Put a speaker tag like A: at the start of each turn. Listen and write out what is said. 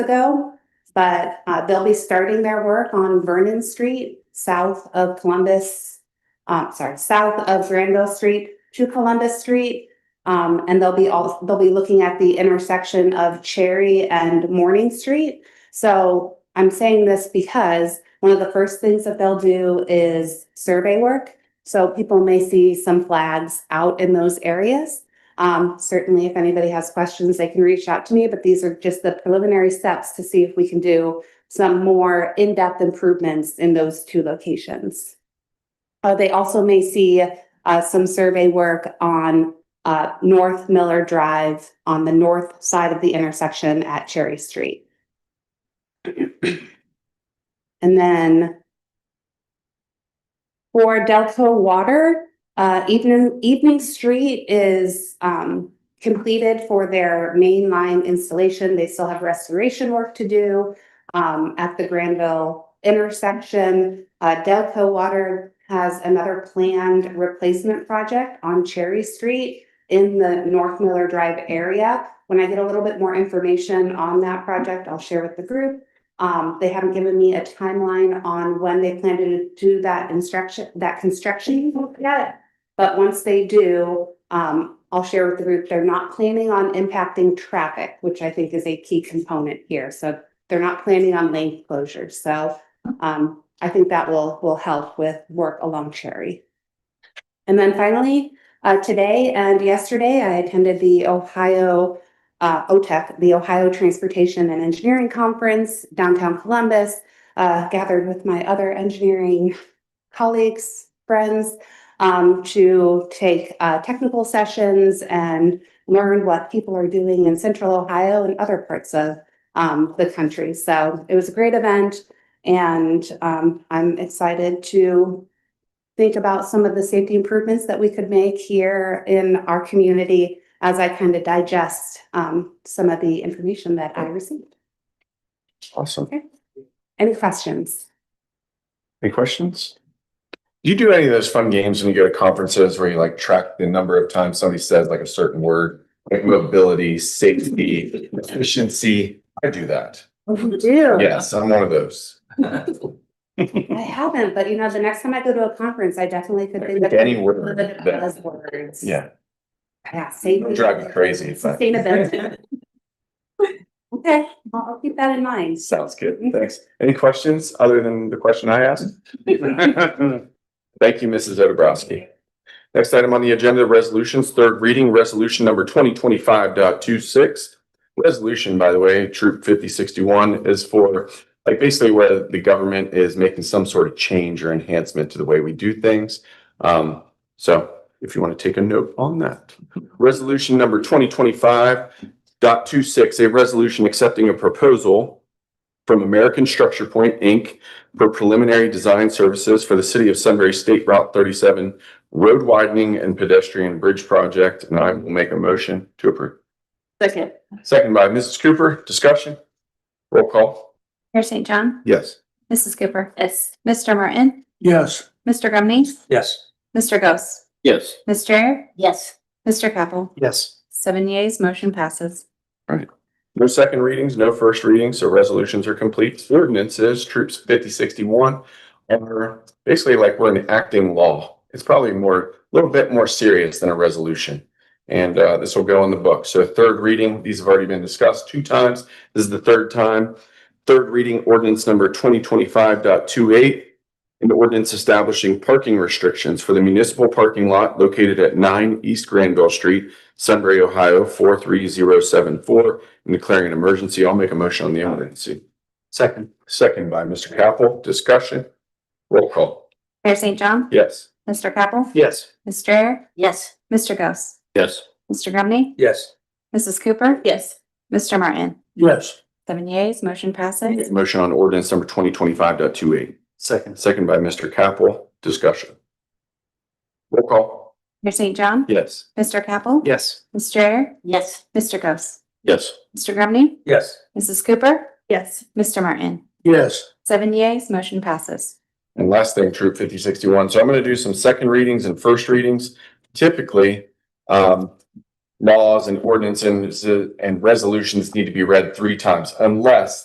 A: ago. But uh, they'll be starting their work on Vernon Street, south of Columbus. Um, sorry, south of Granville Street to Columbus Street. Um, and they'll be all, they'll be looking at the intersection of Cherry and Morning Street. So I'm saying this because one of the first things that they'll do is survey work. So people may see some flags out in those areas. Um, certainly, if anybody has questions, they can reach out to me, but these are just the preliminary steps to see if we can do some more in-depth improvements in those two locations. Uh, they also may see, uh, some survey work on, uh, North Miller Drive on the north side of the intersection at Cherry Street. And then for Delco Water, uh, evening, Evening Street is, um, completed for their main line installation. They still have restoration work to do, um, at the Granville intersection. Uh, Delco Water has another planned replacement project on Cherry Street in the North Miller Drive area. When I get a little bit more information on that project, I'll share with the group. Um, they haven't given me a timeline on when they plan to do that instruction, that construction yet. But once they do, um, I'll share with the group, they're not planning on impacting traffic, which I think is a key component here. So they're not planning on lane closures. So, um, I think that will, will help with work along Cherry. And then finally, uh, today and yesterday, I attended the Ohio, uh, OTEC, the Ohio Transportation and Engineering Conference downtown Columbus, uh, gathered with my other engineering colleagues, friends, um, to take, uh, technical sessions and learn what people are doing in central Ohio and other parts of, um, the country. So it was a great event and, um, I'm excited to think about some of the safety improvements that we could make here in our community as I kind of digest, um, some of the information that I received.
B: Awesome.
A: Any questions?
B: Any questions? Do you do any of those fun games when you go to conferences where you like track the number of times somebody says like a certain word? Like mobility, safety, efficiency. I do that.
A: We do.
B: Yes, I'm one of those.
A: I haven't, but you know, the next time I go to a conference, I definitely could think of.
B: Any
A: some of
B: word.
A: the
B: that-
A: buzzwords.
B: Yeah,
A: Yeah, safety.
B: drive me crazy, but-
A: Sustainability. Okay, I'll I'll keep that in mind.
B: sounds good. Thanks. Any questions other than the question I asked? Thank you, Mrs. Odebrowski. Next item on the agenda, resolutions, third reading, resolution number twenty twenty five point two six. Resolution, by the way, troop fifty sixty one is for, like, basically where the government is making some sort of change or enhancement to the way we do things. Um, so if you want to take a note on that. Resolution number twenty twenty five point two six, a resolution accepting a proposal from American Structure Point, Inc for preliminary design services for the city of Sunbury State Route thirty-seven road widening and pedestrian bridge project, and I will make a motion to approve.
A: Second.
B: Second by Mrs. Cooper, discussion? Roll call.
C: Mayor St. John,
B: Yes.
C: Mrs. Cooper,
A: Yes.
C: Mr. Martin,
D: Yes.
C: Mr. Grumney,
D: Yes.
C: Mr. Ghost,
D: Yes.
C: Ms. Strayer,
A: Yes.
C: Mr. Capel.
D: Yes.
C: Seven yeas, motion passes.
B: No second readings, no first readings, so resolutions are complete. Ordinances, troops fifty sixty-one are basically like we're enacting law. It's probably more, a little bit more serious than a resolution. And uh, this will go in the book. So third reading, these have already been discussed two times. This is the third time. Third reading ordinance number twenty twenty-five dot two eight. An ordinance establishing parking restrictions for the municipal parking lot located at nine East Granville Street, Sunbury, Ohio, four three zero seven four and declaring an emergency. I'll make a motion on the emergency. Second. Second by Mr. Capel. Discussion. Roll call.
C: Mayor St. John,
B: Yes.
C: Mr. Capel,
D: Yes.
C: Ms. Strayer,
A: Yes.
C: Mr. Ghost,
D: Yes.
C: Mr. Grumney,
D: Yes.
C: Mrs. Cooper,
A: Yes.
C: Mr. Martin.
D: Yes.
C: Seven yeas, motion
B: Make
C: passes.
B: a Motion on ordinance number twenty twenty-five dot two eight.
D: Second.
B: Second by Mr. Capel. Discussion. Roll call.
C: Mayor St. John,
B: Yes.
C: Mr. Capel,
D: Yes.
C: Ms. Strayer,
A: Yes.
C: Mr. Ghost,
B: Yes.
C: Mr. Grumney,
D: Yes.
C: Mrs. Cooper,
A: Yes.
C: Mr. Martin.
D: Yes.
C: Seven yeas, motion passes.
B: And last thing, troop fifty sixty-one. So I'm gonna do some second readings and first readings. Typically, um, laws and ordinances and resolutions need to be read three times unless